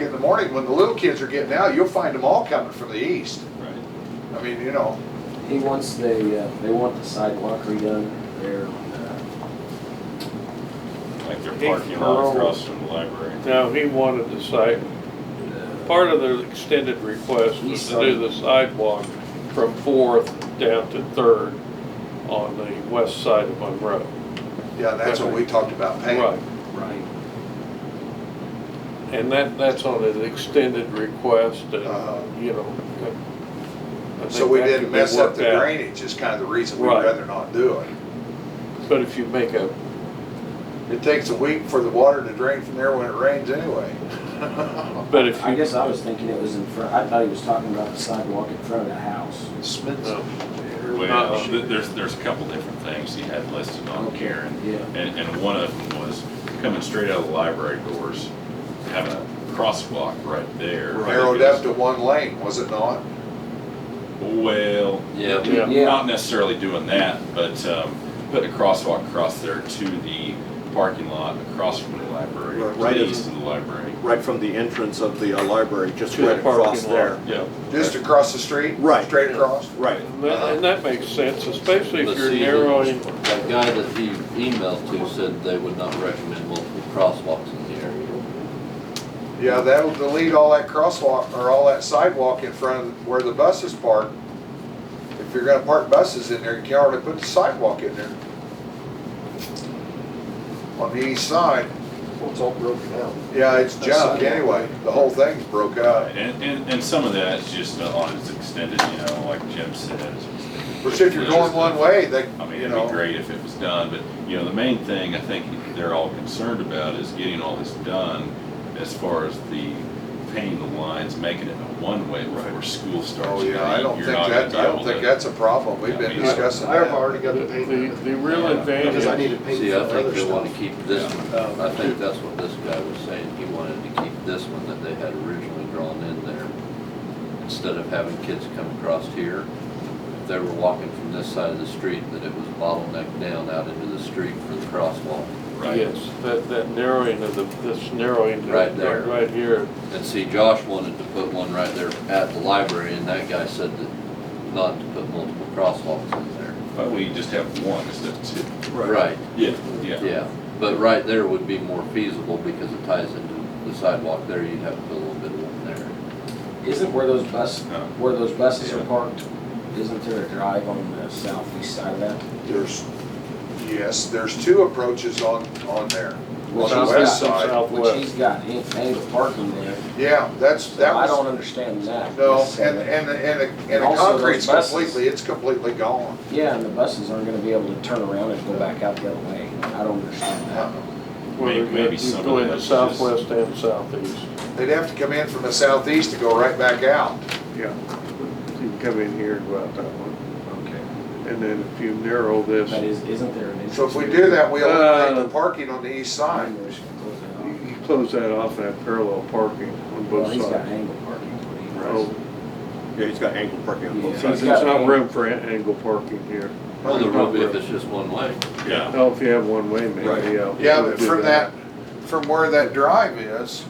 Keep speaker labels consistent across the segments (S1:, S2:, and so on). S1: in the morning, when the little kids are getting out, you'll find them all coming from the east.
S2: Right.
S1: I mean, you know,
S3: He wants the, uh, they want the sidewalk redone there on, uh,
S2: Like
S4: Hey,
S2: their parking lot
S3: Pearl.
S2: across from the library.
S4: Now, he wanted to say,
S3: the-
S4: part of the extended request was to do the sidewalk from Fourth down to Third on the west side of Monroe.
S1: yeah, that's what we talked about paying.
S4: Right,
S3: right.
S4: and that, that's on an extended request
S1: Uh-huh.
S4: and, you know. uh, I
S1: So
S4: think
S1: we
S4: that could
S1: didn't
S4: be
S1: mess up
S4: worked
S1: the
S4: out.
S1: drainage is kind of the reason we'd
S4: Right.
S1: rather not do it.
S4: But if you make a,
S1: It takes a week for the water to drain from there when it rains anyway.
S4: but if
S3: I
S4: you,
S3: guess I was thinking it was in front, I thought he was talking about the sidewalk in front of the house.
S1: Smithson.
S4: no, uh,
S2: Well, th- there's, there's a couple different things he had listed on
S3: Okay,
S2: here.
S3: yeah.
S2: And, and one of them was coming straight out of the library doors, having a crosswalk right there.
S1: Narrowed up to one lane, was it not?
S2: Well,
S4: Yeah.
S2: not necessarily doing that, but, um, putting a crosswalk across there to the parking lot, across from the library,
S5: Right,
S2: to
S5: right
S2: the
S5: in-
S2: east of the library.
S5: Right from the entrance of the uh, library, just
S4: to the
S5: right
S4: parking lot.
S5: across there.
S2: Yeah.
S1: Just across the street?
S5: Right.
S1: Straight across?
S5: Right.
S4: And that- and that makes sense, especially if
S6: But
S4: you're
S6: see, the-
S4: narrowing,
S6: That guy that he emailed to said they would not recommend multiple crosswalks in the area.
S1: Yeah, that'll delete all that crosswalk, or all that sidewalk in front of where the buses park. If you're gonna park buses in there, you can already put the sidewalk in there. On the east side,
S5: Well, it's all broken down.
S1: yeah, it's
S5: That
S1: junk
S5: sidewalk.
S1: anyway, the whole thing's broke up.
S2: And, and, and some of that is just on its extended, you know, like Jim said. it's extended.
S1: Which if you're going one way, they,
S2: I mean,
S1: you
S2: it'd be
S1: know,
S2: great if it was done, but, you know, the main thing I think they're all concerned about is getting all this done as far as the painting the lines, making it a one-way before school starts.
S1: oh yeah, I
S2: You're
S1: don't think
S2: not gonna
S1: that,
S2: be
S1: I
S2: able
S1: don't
S2: to-
S1: think that's a problem, we've
S2: Yeah,
S1: been
S2: I mean,
S1: discussing
S5: I've
S1: that.
S5: already got
S4: the,
S5: the paint.
S4: the real advantage.
S5: Because I need to paint
S6: See,
S5: the
S6: I think
S5: other
S6: they want to
S5: stuff. Um,
S6: keep this
S5: Yeah.
S6: one, I think that's what this guy was saying, he wanted to keep this one that they had originally drawn in there. Instead of having kids come across here, if they were walking from this side of the street, that it was bottlenecked down out into the street for the crosswalk.
S2: Right,
S4: Yes, that, that narrowing of the, this narrowing. of the-
S6: Right there.
S4: Right here.
S6: And see, Josh wanted to put one right there at the library, and that guy said that not to put multiple crosswalks in there.
S2: but we just have one instead of two.
S6: Right,
S2: Yeah, yeah.
S6: yeah, but right there would be more feasible because it ties into the sidewalk there, you'd have to put a little bit of one there.
S3: Isn't where those bus,
S2: No.
S3: where those buses
S2: Yeah.
S3: are parked, isn't there a drive on the southeast side of that?
S1: There's, yes, there's two approaches on, on there.
S3: Which
S1: the
S3: he's
S1: west
S3: got-
S1: side.
S3: Which
S4: Southwest.
S3: he's got angled parking there,
S1: Yeah, that's,
S3: so
S1: that
S3: I
S1: was.
S3: don't understand that.
S1: No, and,
S3: necessarily.
S1: and, the- and, the- and
S3: And
S1: the
S3: also those
S1: concrete's
S3: buses.
S1: completely, it's completely gone.
S3: Yeah, and the buses aren't gonna be able to turn around and go back out the other way, I don't understand that.
S4: where
S2: Maybe- maybe
S4: you
S2: some of
S4: go in
S2: that
S4: the
S2: is just-
S4: southwest and southeast.
S1: They'd have to come in from the southeast to go right back out.
S4: Yeah, you can come in here and go out that one,
S3: Okay.
S4: and then if you narrow this.
S3: But is, isn't there an entrance?
S1: So if we do that, we eliminate
S4: Uh,
S1: the parking on the east
S3: I
S1: side.
S3: know we should close it off.
S4: You close that off and have parallel parking on
S3: Well,
S4: both
S3: he's got
S4: sides.
S3: angled parking. but he-
S4: Oh,
S5: Yeah, he's got angled parking on both
S3: Yeah.
S4: so
S5: sides.
S4: There's not room for an- angle parking here.
S6: Well, there will be if it's just one way.
S2: Yeah,
S4: Oh, if you have one way,
S5: Right.
S4: maybe, yeah.
S1: Yeah,
S4: we'll
S1: but
S4: do
S1: from that, from where that drive is,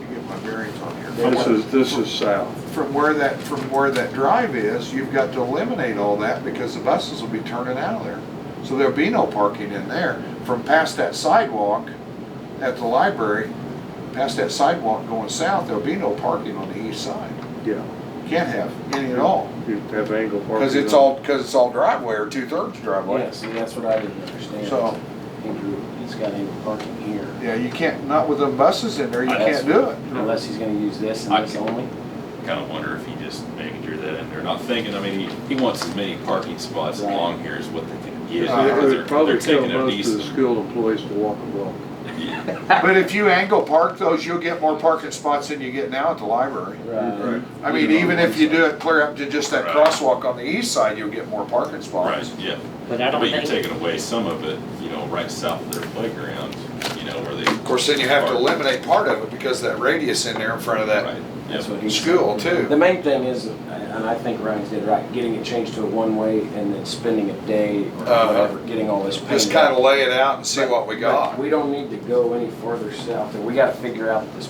S1: you get my bearings on here. From
S4: This
S1: where-
S4: is, this is south.
S1: From where that, from where that drive is, you've got to eliminate all that because the buses will be turning out of there. So there'll be no parking in there. From past that sidewalk at the library, past that sidewalk going south, there'll be no parking on the east side.
S4: Yeah,
S1: Can't have any at all,
S4: you have angle parking.
S1: because it's
S4: on-
S1: all, because it's all driveway or two-thirds
S3: Yeah,
S1: driveway.
S3: see, that's what I didn't understand.
S1: So-
S3: Andrew, he's got angled parking here,
S1: Yeah, you can't, not with them buses in there, you can't do it.
S3: unless he's gonna use this
S2: I
S3: and this
S2: can-
S3: only?
S2: kind of wonder if he just maybe drew that in there, not thinking, I mean, he, he wants as many parking spots
S3: Right.
S2: along here as what they can get.
S1: Uh,
S4: It
S2: because they're-
S4: would probably
S2: they're
S4: tell
S2: taking a
S4: most of the
S2: decent-
S4: skilled employees to walk a block.
S2: Yeah,
S1: But if you angle park those, you'll get more parking spots than you get now at the library.
S3: Right.
S1: I mean, even if you do it clear up to just that
S2: Right.
S1: crosswalk on the east side, you'll get more parking
S2: Right,
S1: spots.
S2: yeah.
S7: But I don't
S2: But you're
S7: think,
S2: taking away some of it, you know, right south of their playground, you know, where they.
S1: Of course, then you have to eliminate part of it because that radius in there in front of that
S2: Right, yeah.
S3: That's what he's.
S1: school
S3: The
S1: too.
S3: main thing is, I, I and I think Ryan's did right, getting it changed to a one-way and then spending a day or
S1: Uh-huh.
S3: whatever, getting all this paint
S1: Just kind
S3: out.
S1: of lay it out and see what we
S3: But
S1: got.
S3: We don't need to go any further south, and we gotta figure out this